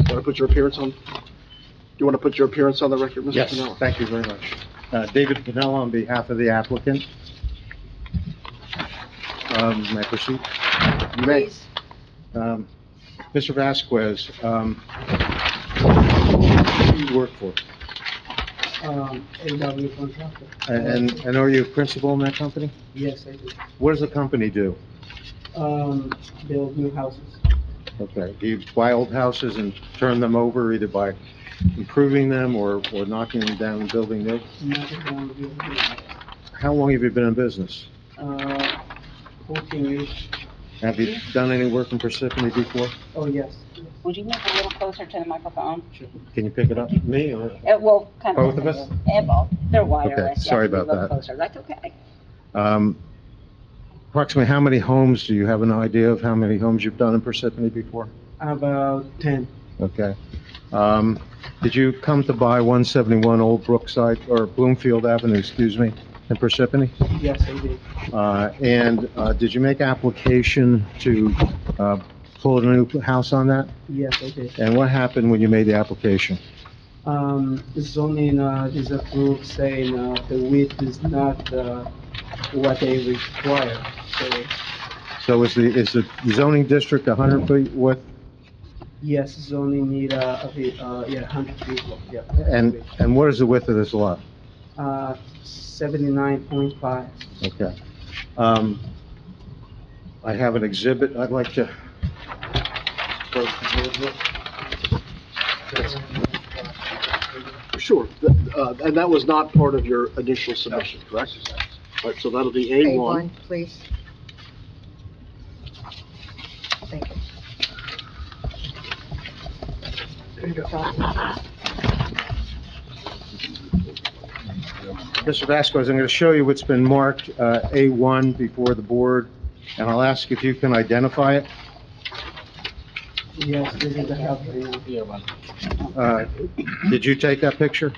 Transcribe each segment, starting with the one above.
Want to put your appearance on, you want to put your appearance on the record, Mr. Yes, Pennella? thank you very much. Uh, David Pennella on behalf of the applicant. Um, May I proceed? You may. Um, Mr. Vasquez, um, who do you work for? Um, AW contractor. And, and are you a principal in that company? Yes, I do. What does the company do? Um, build new houses. Okay, do you buy old houses and turn them over either by improving them or, or knocking them down and building new? Nothing wrong with building new houses. How long have you been in business? Uh, fourteen years. Have you done any work in Parsippany before? Oh, yes. yes, Would you move a little closer to the microphone? sure. Can you pick it up, me or? Uh, well, kind of. Both of us? Yeah, both. They're wireless. yeah, sorry if you about look that. Closer, that's okay. Um, Approximately how many homes, do you have an idea of how many homes you've done in Parsippany before? About ten. Okay. Um, Did you come to buy 171 Old Brookside, or Bloomfield Avenue, excuse me, in Parsippany? Yes, I did. Uh, And uh, did you make application to uh, pull a new house on that? Yes, I did. And what happened when you made the application? Um, zoning, uh, is approved saying, uh, the width is not, uh, what they require. So, So is the, is the zoning district 100 feet width? yes, zoning need, uh, a bit, uh, yeah, hundred people, yeah. And, and what is the width of this lot? Uh, seventy-nine point five. Okay. Um, I have an exhibit I'd like to, Sure, Th- uh, and that was not part of your initial submission, correct? All right, so that'll be A1. A1, please. Thank you. Mr. Vasquez, I'm going to show you what's been marked uh, A1 before the board, and I'll ask if you can identify it. Yes, this is the help. right now. Uh, Did you take that picture?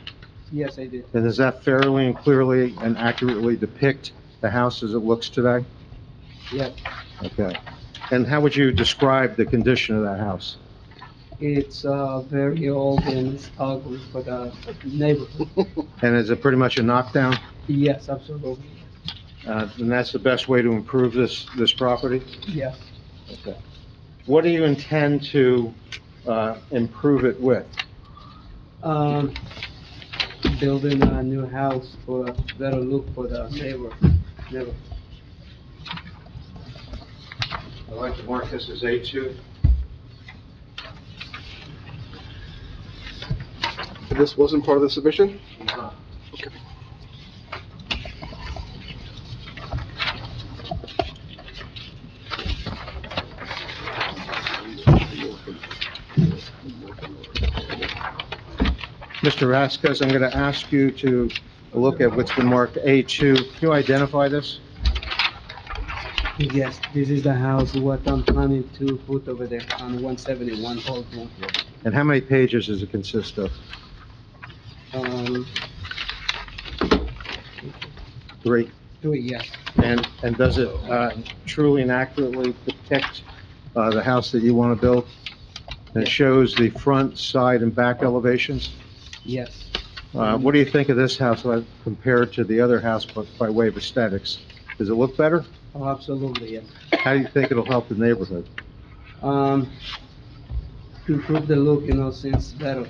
Yes, I did. And does that fairly and clearly and accurately depict the house as it looks today? Yes, Okay. And how would you describe the condition of that house? it's uh, very old and it's ugly for the neighborhood. And is it pretty much a knockdown? Yes, absolutely. Uh, And that's the best way to improve this, this property? Yes. Okay. What do you intend to uh, improve it with? Um, building a new house for a better look for the neighbor. neighbor. I'd like to mark this as A2. This wasn't part of the submission? Mr. Vasquez, I'm going to ask you to look at what's been marked A2. Can you identify this? Yes, this is the house what I'm planning to put over there on 171 Old Bloomfield. And how many pages does it consist of? Um, Three. three, yes, And, and does it uh, truly and accurately depict uh, the house that you want to build? And it shows the front, side, and back elevations? yes. Uh, What do you think of this house uh, compared to the other house but by way of aesthetics? Does it look better? Oh, absolutely, yes. How do you think it'll help the neighborhood? Um, improve the look, you know, since better.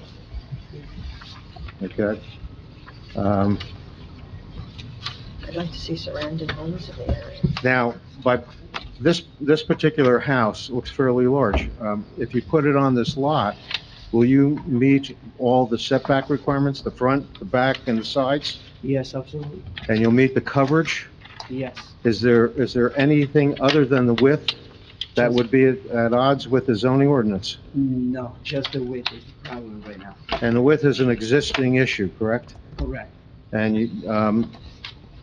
Okay? Um, I'd like to see surrounding homes in the area. Now, by, this, this particular house looks fairly large. Um, If you put it on this lot, will you meet all the setback requirements, the front, the back, and the sides? Yes, absolutely, And you'll meet the coverage? yes. Is there, is there anything other than the width that would be at at odds with the zoning ordinance? No, just the width is the problem right now. And the width is an existing issue, correct? Correct. And you, um,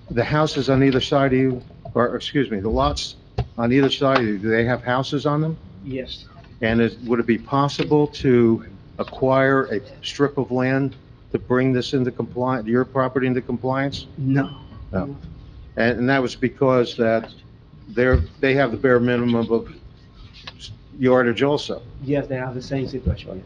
the houses on either side of you, or, excuse me, the lots on either side of you, do they have houses on them? Yes. And is, would it be possible to acquire a strip of land to bring this into compliance, your property into compliance? No. No. And, and that was because that they're, they have the bare minimum of yardage also. Yes, they have the same situation, yes.